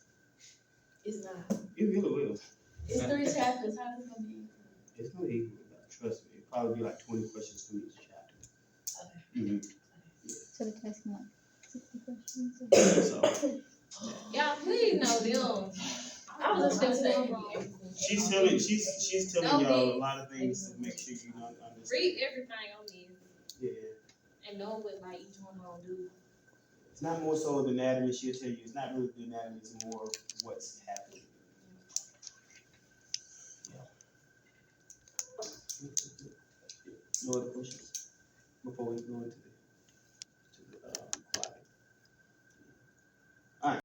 It's not. It really will. It's three chapters, how is it gonna be? It's not equal, but trust me, it'll probably be like twenty questions to each chapter. Okay. Mhm. So the test can like sixty questions. So, Y'all, please know them. I was just gonna say. she's telling, she's, she's telling No, y'all a please. lot of things to make sure you don't Read understand. everything on this Yeah, and know what like each one gonna do. it's not more so the anatomy, she'll tell you, it's not really the anatomy, it's more of what's happening. Yeah. No other questions before we go into the uh,